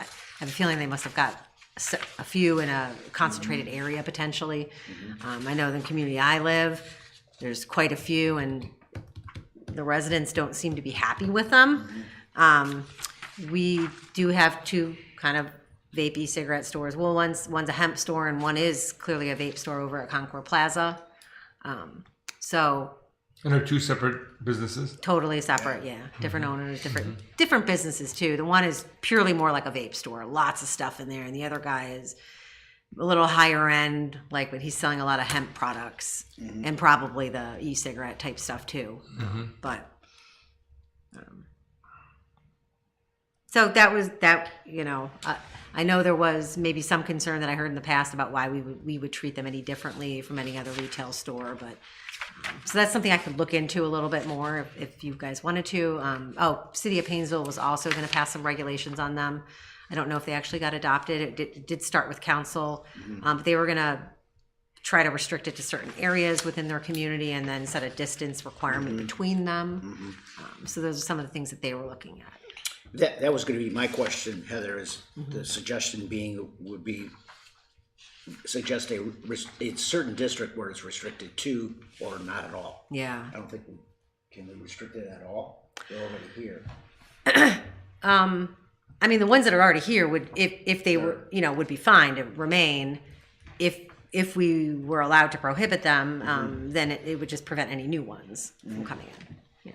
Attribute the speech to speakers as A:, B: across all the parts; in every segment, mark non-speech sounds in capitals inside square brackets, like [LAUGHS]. A: I have a feeling they must have got s- a few in a concentrated area potentially. Um, I know in the community I live, there's quite a few, and the residents don't seem to be happy with them. Um, we do have two kind of vapey cigarette stores. Well, one's one's a hemp store, and one is clearly a vape store over at Concord Plaza. Um, so
B: And they're two separate businesses.
A: totally separate yeah different owners different different businesses too the one is purely more like a vape store lots of stuff in there and the other guy is a little higher end like but he's selling a lot of hemp products and probably the e-cigarette type stuff too but um, so that was that you know uh, i know there was maybe some concern that i heard in the past about why we would we would treat them any differently from any other retail store but so that's something I could look into a little bit more if, if you guys wanted to. Um, oh, City of Painesville was also going to pass some regulations on them. I don't know if they actually got adopted. It did, it did start with council, um, but they were going to try to restrict it to certain areas within their community and then set a distance requirement between them. Um, so those are some of the things that they were looking at.
C: That, that was gonna be my question, Heather, is
D: Mm-hmm.
C: the suggestion being, would be, suggest a, res- a certain district where it's restricted to or not at all.
A: Yeah.
C: I don't think, we can we restrict it at all? They're already here.
A: Um, I mean, the ones that are already here would, if, if they were, you know, would be fine to remain. If, if we were allowed to prohibit them, um, then it, it would just prevent any new ones from coming in. Yeah.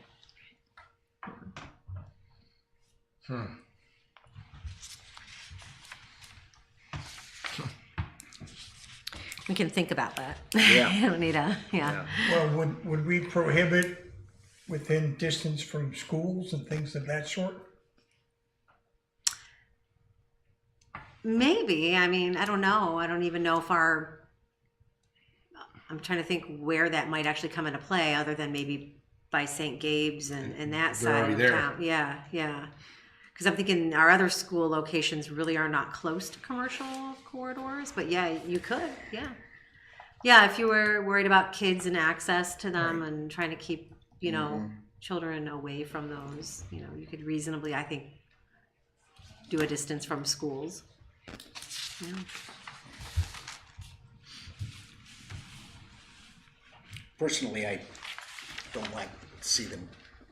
A: We can think about that. [LAUGHS]
C: Yeah.
A: You don't need a, yeah.
D: Well, would, would we prohibit within distance from schools and things of that sort?
A: Maybe. I mean, I don't know. I don't even know if our. I'm trying to think where that might actually come into play, other than maybe by St. Gabe's and, and that
B: They're
A: side
B: already
A: of
B: there.
A: town. Yeah, yeah. Because I'm thinking our other school locations really are not close to commercial corridors, but yeah, you could. Yeah. Yeah, if you were worried about kids and access to them and trying to keep, you know,
B: Mm-hmm.
A: children away from those, you know, you could reasonably, I think, do a distance from schools. Yeah.
C: Personally, I don't like to see them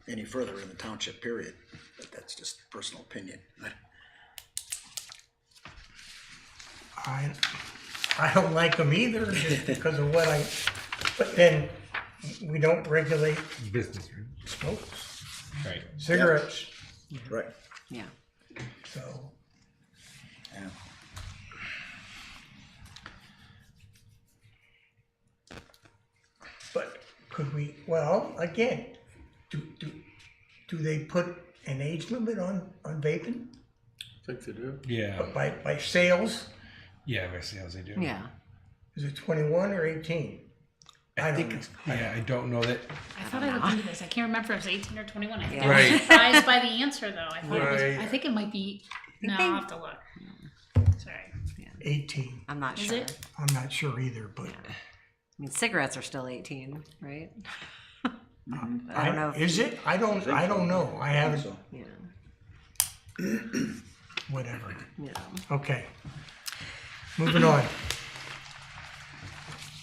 C: any further in the township, period, but that's just personal opinion.
D: I, I don't like them either, just because of what I, but then we don't regulate
B: Business.
D: smokes,
B: Right.
D: cigarettes, Mm-hmm.
C: Right.
A: Yeah.
E: Mm-hmm.
D: so.
C: Yeah.
D: But could we, well, again, do, do, do they put an age limit on, on vaping?
B: Yeah.
D: By, by sales,
B: Yeah, I see how they do.
A: Yeah.
D: is it twenty-one or eighteen? I don't know.
B: Yeah, I don't know that.
E: I thought I looked into this. I can't remember if it was 18 or 21. I think I
B: Right.
E: was surprised by the answer, though. I thought it
B: Right.
E: was, I think it might be. No,
A: they-
E: I'll have to look. Sorry.
D: Eighteen,
A: I'm not
E: Is
A: sure.
E: it?
D: I'm not sure either, but.
A: I mean, cigarettes are still 18, right? I
D: I
A: don't know. if-
D: Is it? I don't, I don't know. I haven't,
C: So,
A: Yeah.
D: whatever.
A: yeah.
D: Okay. Moving on.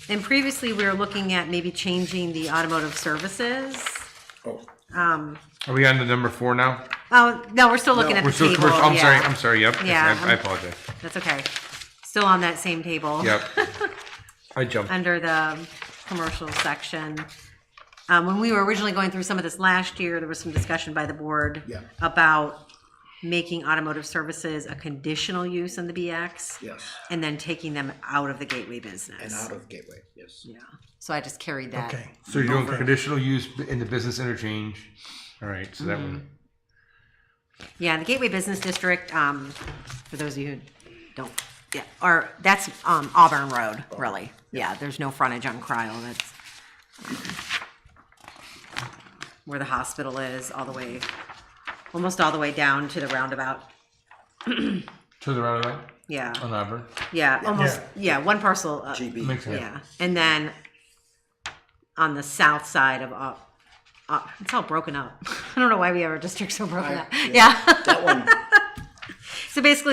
A: And previously, we were looking at maybe changing the automotive services.
C: oh,
A: Um,
B: Are we on to number four now?
A: oh, no, we're still looking at
B: We're
A: the
B: still
A: table.
B: commercial. I'm
A: yeah.
B: sorry. I'm sorry. Yep. Yes,
A: Yeah,
B: I, I
A: I'm-
B: apologize.
A: That's okay. Still on that same table.
B: Yep.
A: [LAUGHS]
B: I jumped.
A: under the commercial section. Um, when we were originally going through some of this last year, there was some discussion by the board
C: Yeah.
A: about making automotive services a conditional use in the BX
C: yes,
A: and then taking them out of the gateway
C: and
A: business.
C: out of Gateway, yes.
A: Yeah, so I just carried that.
D: Okay.
B: So you're doing conditional use in the business interchange. All right. So that
A: Mm-hmm.
B: one.
A: Yeah, the Gateway Business District, um, for those of you who don't, yeah, or, that's, um, Auburn Road, really. Yeah, there's no frontage on Cryle, that's um, where the hospital is, all the way, almost all the way down to the roundabout.
B: To the right of that
A: Yeah,
B: on Auburn.
A: yeah, almost, Oh. yeah, one parcel, uh,
C: GB.
D: [LAUGHS]
B: Makes sense.
A: yeah. And then on the south side of, uh, uh, it's all [LAUGHS] broken up. I don't know why we have our districts so broken
C: I-
A: up. Yeah, [LAUGHS]
C: That one,
A: so basically